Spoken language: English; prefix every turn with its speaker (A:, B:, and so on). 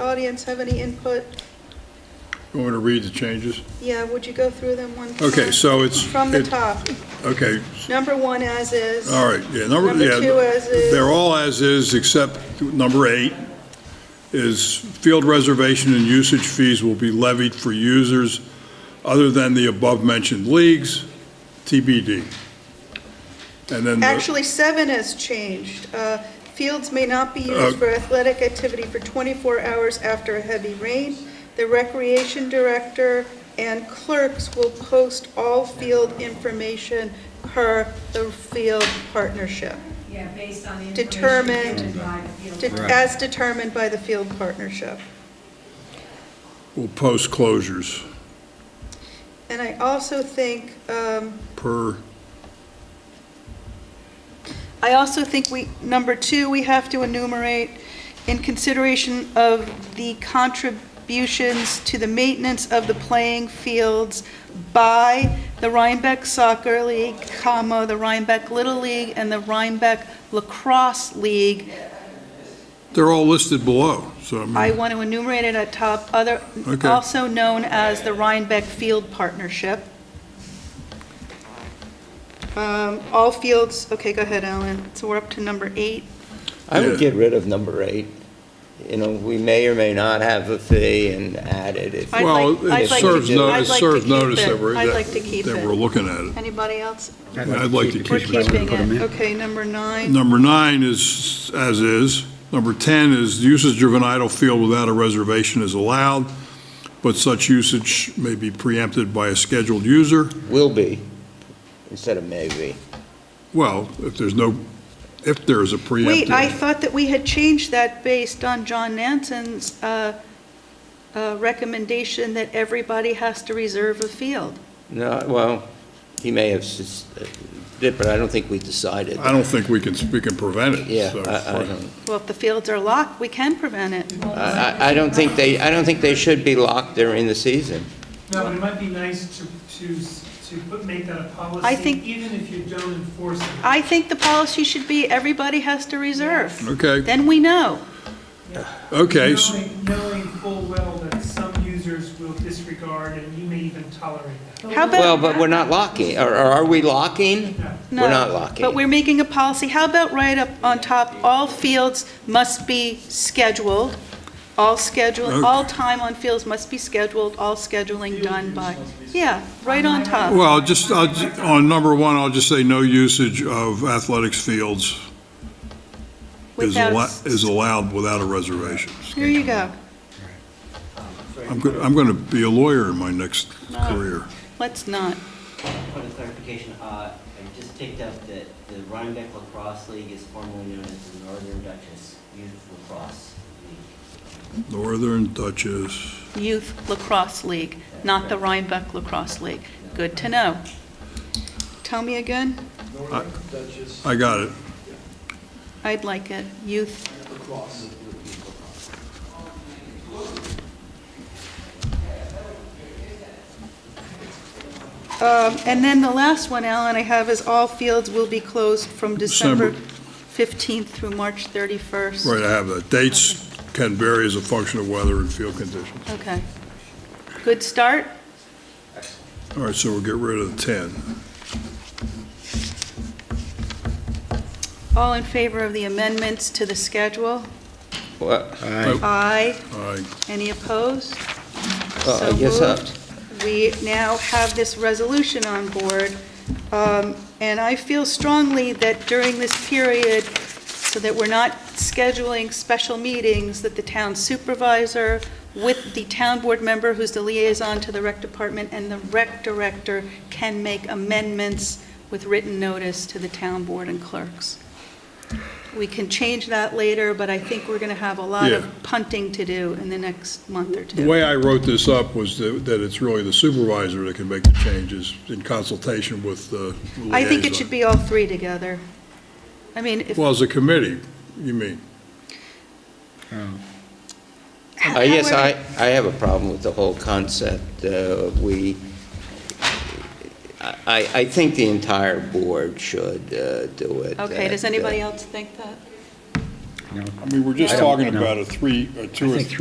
A: audience have any input?
B: You want me to read the changes?
A: Yeah, would you go through them one?
B: Okay,
A: time?
B: so it's.
A: From the
B: it-
A: top.
B: Okay,
A: Number one as is.
B: all right, yeah, number,
A: Number
B: yeah.
A: two as is.
B: They're all as is, except number eight is field reservation and usage fees will be levied for users other than the above-mentioned leagues, TBD. And then. the-
A: Actually, seven has changed. Uh, Fields may not be
B: Uh,
A: used for athletic activity for 24 hours after a heavy rain. The recreation director and clerks will post all field information per the field partnership,
C: Yeah, based on the information
A: Determined.
C: given by the field
A: de-
C: director.
A: as determined by the field partnership.
B: Will post closures
A: And I also think, um,
B: per,
A: I also think we, number two, we have to enumerate in consideration of the contributions to the maintenance of the playing fields by the Rhinebeck Soccer League, comma, the Rhinebeck Little League, and the Rhinebeck Lacrosse League.
B: they're all listed below, so I mean.
A: I want to enumerate it at top, other,
B: Okay.
A: also known as the Rhinebeck Field Partnership. Um, All fields, okay, go ahead, Alan. So we're up to number eight.
D: I
B: Yeah.
D: would get rid of number eight. You know, we may or may not have a fee and add it if.
A: I'd
B: Well,
A: like- I'd
B: it
A: like
B: serves
A: to-
B: no-
A: I'd
B: it
A: like to
B: serves
A: keep
B: notice
A: it.
B: that we're,
A: I'd like to keep
B: that that
A: it.
B: we're looking at it.
A: Anybody else?
B: I'd like to
A: We're
B: keep it.
A: keeping it. Okay, number nine.
B: Number nine is as is. Number 10 is usage of an idle field without a reservation is allowed, but such usage may be preempted by a scheduled user.
D: Will be, instead of maybe.
B: Well, if there's no, if there is a
A: Wait, I
B: preemptive.
A: thought that we had changed that based on John Nansen's uh, uh, recommendation that everybody has to reserve a field.
D: No, well, he may have, s- uh, did, but I don't think we decided.
B: I don't think we can, we can prevent it.
D: Yeah,
B: so-
D: I, I don't,
A: Well, if the fields are locked, we can prevent it.
D: I, I- I don't think they, I don't think they should be locked during the season.
E: No, but it might be nice to, to, s- to put, make that a policy.
A: I think-
E: Even if you don't enforce it.
A: I think the policy should be everybody has to reserve.
B: Okay,
A: Then we know.
B: okay, s-
E: Knowing, knowing full well that some users will disregard and you may even tolerate that.
A: How about?
D: Well, but we're not locking, or, or are we locking?
E: No.
A: No,
D: We're not locking.
A: But we're making a policy, how about right up on top, all fields must be scheduled, all schedule, all time on fields must be scheduled, all scheduling done by, yeah, right on top.
B: well, just, I'll ju- on number one, I'll just say no usage of athletics fields is
A: Without-
B: allo- is allowed without a reservation.
A: Here you go,
B: I'm go- I'm going to be a lawyer in my next
A: No.
B: career.
A: let's not.
F: Point of clarification, uh, I just picked up that the Rhinebeck Lacrosse League is formerly known as the Northern Duchess Youth Lacrosse League.
B: Northern Duchess.
A: Youth Lacrosse League, not the Rhinebeck Lacrosse League, good to know. Tell me again,
G: Northern Duchess
B: I got it.
A: I'd like it, youth
G: lacrosse.
A: Um, And then the last one, Alan, I have is all fields will be closed from December
B: December.
A: 15th through March 31st.
B: Right, I have that. Dates can vary as a function of weather and field conditions.
A: Okay. Good start.
B: All right, so we'll get rid of the 10.
A: All in favor of the amendments to the schedule?
D: Well,
A: Aye.
B: All right,
A: Any opposed?
D: Uh,
A: So
D: yes, uh,
A: moved. We now have this resolution on board, um, and I feel strongly that during this period, so that we're not scheduling special meetings, that the town supervisor with the town board member who's the liaison to the rec department and the rec director can make amendments with written notice to the town board and clerks. We can change that later, but I think we're going to have a lot of
B: Yeah.
A: punting to do in the next month or two.
B: the way I wrote this up was that that it's really the supervisor that can make the changes in consultation with the liaison.
A: I think it should be all three together. I mean, if,
B: Well, as a committee, you mean?
D: Uh, Yes, I,
A: however-
D: I have a problem with the whole concept. Uh, We, I, I- I think the entire board should uh, do it.
A: Okay, does
D: And, uh,
A: anybody else think that?
B: I mean, we're just
A: I don't
B: talking about a three, a two or three.